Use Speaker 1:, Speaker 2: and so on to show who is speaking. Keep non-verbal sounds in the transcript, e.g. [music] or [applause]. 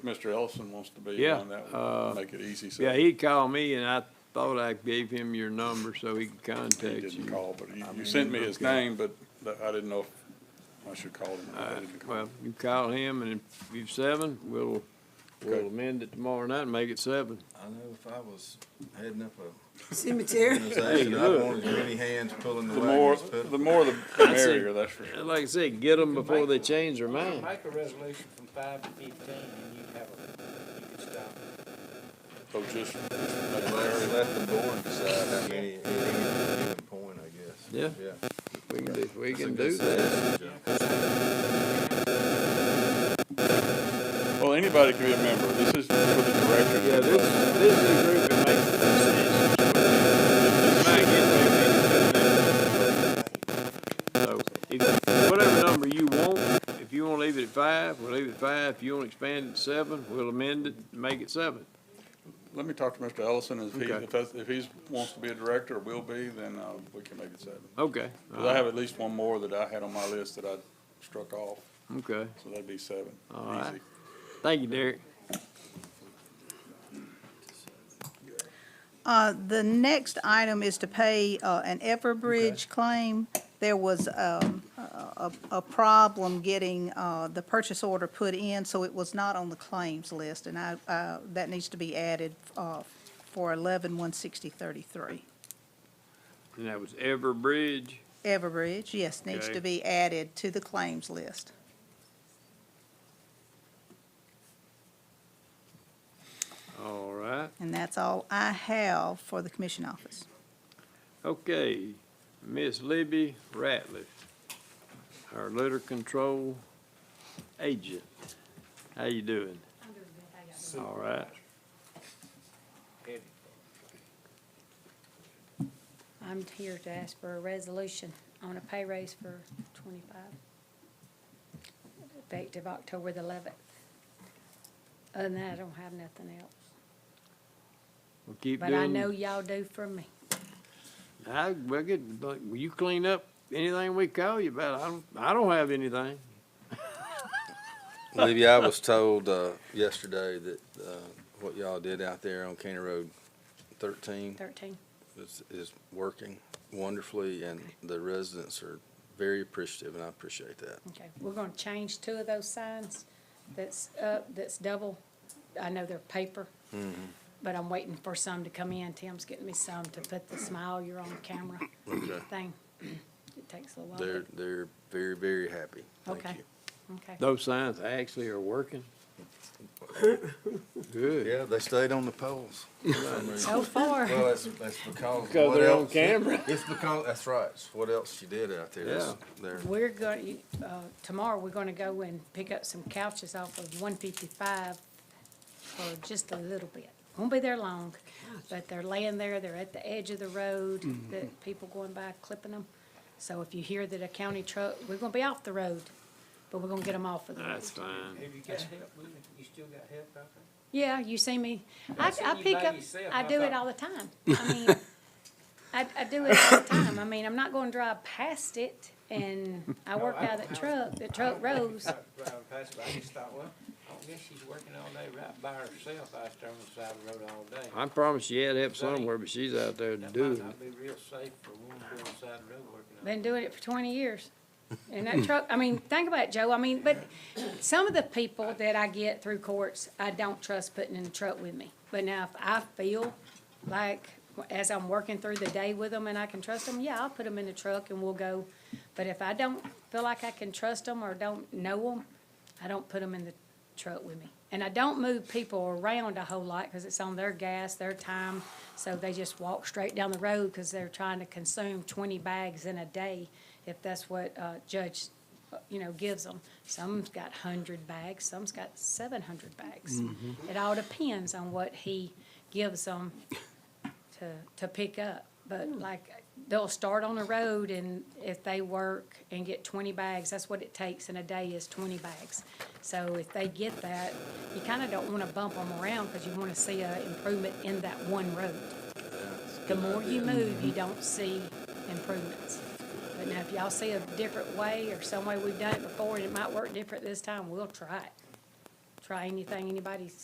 Speaker 1: Mr. Ellison wants to be
Speaker 2: Yeah,
Speaker 1: on that,
Speaker 2: uh,
Speaker 1: would make it easy, so.
Speaker 2: Yeah, he called me and I thought I gave him your number so he could
Speaker 1: He
Speaker 2: contact
Speaker 1: didn't
Speaker 2: you.
Speaker 1: call, but you,
Speaker 2: I
Speaker 1: you
Speaker 2: mean,
Speaker 1: sent me his
Speaker 2: okay.
Speaker 1: name, but th- I didn't know if I should call him. or not. I
Speaker 2: Uh,
Speaker 1: didn't call.
Speaker 2: Well, you call him and if you've seven, we'll,
Speaker 1: Okay.
Speaker 2: we'll amend it tomorrow night and make it seven.
Speaker 3: I know if I was heading up a [laughs]
Speaker 4: Cemetery.
Speaker 3: organization, I
Speaker 2: look.
Speaker 3: wanted as many hands pulling the
Speaker 1: The more,
Speaker 3: wagon as
Speaker 1: the
Speaker 3: possible.
Speaker 1: more the the merrier, that's for
Speaker 2: And
Speaker 1: sure.
Speaker 2: Like I said, get them before they change their mind.
Speaker 5: Make a resolution from five to fifteen, and you have a, you can stop.
Speaker 1: So Oh, just,
Speaker 3: Let let the board decide how many, at any given point, I guess.
Speaker 2: Yeah.
Speaker 3: Yeah.
Speaker 2: We
Speaker 3: That's a
Speaker 2: can do, we can
Speaker 3: good
Speaker 2: do that.
Speaker 3: suggestion,
Speaker 1: well, anybody can be a member, this is for the director.
Speaker 2: Yeah, this, this is a group that makes the decisions. So, if, whatever number you want, if you wanna leave it at five, we'll leave it at five. If you wanna expand it to seven, we'll amend it, make it seven.
Speaker 1: Let me talk to Mr. Ellison, and if he,
Speaker 2: Okay.
Speaker 1: if that's, if he's, wants to be a director or will be, then, uh, we can make it seven.
Speaker 2: Okay,
Speaker 1: Cause I have at least one more that I had on my list that I struck off,
Speaker 2: okay.
Speaker 1: so that'd be seven,
Speaker 2: All right.
Speaker 1: easy.
Speaker 2: Thank you, Derek.
Speaker 4: Uh, the next item is to pay, uh, an Everbridge claim. There was, um, a, a a problem getting, uh, the purchase order put in, so it was not on the claims list, and I, uh, that needs to be added, uh, for eleven one sixty thirty-three.
Speaker 2: And that was Everbridge.
Speaker 4: Everbridge, yes, needs
Speaker 2: Okay.
Speaker 4: to be added to the claims list.
Speaker 2: All right.
Speaker 4: And that's all I have for the commission office.
Speaker 2: Okay, Miss Libby Ratliff, our litter control agent. How you doing? All right.
Speaker 6: I'm here to ask for a resolution on a pay raise for twenty-five, effective October the eleventh. Other than that, I don't have nothing else,
Speaker 2: We'll keep
Speaker 6: but I know
Speaker 2: doing.
Speaker 6: y'all do for me.
Speaker 2: I, we'll get, like, will you clean up anything we call you about? I don't, I don't have anything.
Speaker 7: Olivia, I was told, uh, yesterday that, uh, what y'all did out there on County Road thirteen
Speaker 6: Thirteen,
Speaker 7: is, is working wonderfully and the residents are very appreciative and I appreciate that.
Speaker 6: okay. We're gonna change two of those signs that's up, that's double. I know they're paper, but I'm waiting for some to come in. Tim's getting me some to put the smile you're on camera
Speaker 7: Okay.
Speaker 6: thing. It takes a little while,
Speaker 7: They're, they're very, very happy. Thank
Speaker 6: Okay.
Speaker 7: you.
Speaker 6: but, okay.
Speaker 2: Those signs actually are
Speaker 7: [laughs]
Speaker 2: working. Good.
Speaker 7: Yeah, they stayed on the [laughs] poles.
Speaker 6: So far.
Speaker 7: Well, that's, that's because.
Speaker 2: Because
Speaker 7: what
Speaker 2: they're on
Speaker 7: else-
Speaker 2: camera.
Speaker 7: It's because, that's right, it's what else she did out there. It's- They're,
Speaker 6: We're going, uh, tomorrow, we're gonna go and pick up some couches off of one fifty-five for just a little bit. Won't be there long, but they're laying there, they're at the edge of the road, that people going by clipping them. So if you hear that a county truck, we're gonna be off the road, but we're gonna get them off of the road.
Speaker 2: That's fine.
Speaker 5: Have you got help with it? You still got help out there?
Speaker 6: Yeah, you see me, I,
Speaker 5: seen
Speaker 6: I
Speaker 5: you
Speaker 6: pick
Speaker 5: by
Speaker 6: up,
Speaker 5: yourself,
Speaker 6: I
Speaker 5: I
Speaker 6: do it
Speaker 5: thought-
Speaker 6: all
Speaker 5: [laughs]
Speaker 6: the time. I mean, I, I do it all the time. I mean, I'm not gonna drive past it and I work
Speaker 5: I-
Speaker 6: out of the truck, the
Speaker 5: I
Speaker 6: truck
Speaker 5: don't think
Speaker 6: rolls.
Speaker 5: I was Driving past, but I just thought, well, I guess she's working all day right by herself out there on the side of the road all day.
Speaker 2: I promise you had help somewhere, but she's out there
Speaker 5: That might
Speaker 2: doing
Speaker 5: not be real safe for a woman to be on the side of the road working all day.
Speaker 6: Been doing it for twenty years. And that truck, I mean, think about it, Joe, I mean, but some of the people that I get through courts, I don't trust putting in the truck with me. But now if I feel like, as I'm working through the day with them and I can trust them, yeah, I'll put them in the truck and we'll go. But if I don't feel like I can trust them or don't know them, I don't put them in the truck with me. And I don't move people around a whole lot because it's on their gas, their time. So they just walk straight down the road because they're trying to consume twenty bags in a day if that's what uh, judge, uh, you know, gives them. Some's got hundred bags, some's got seven hundred bags. It all depends on what he gives them to, to pick up. But like, they'll start on the road and if they work and get twenty bags, that's what it takes in a day is twenty bags. So if they get that, you kinda don't wanna bump them around because you wanna see a improvement in that one road. The more you move, you don't see improvements. But now if y'all see a different way or some way we've done it before and it might work different this time, we'll try it. try anything anybody's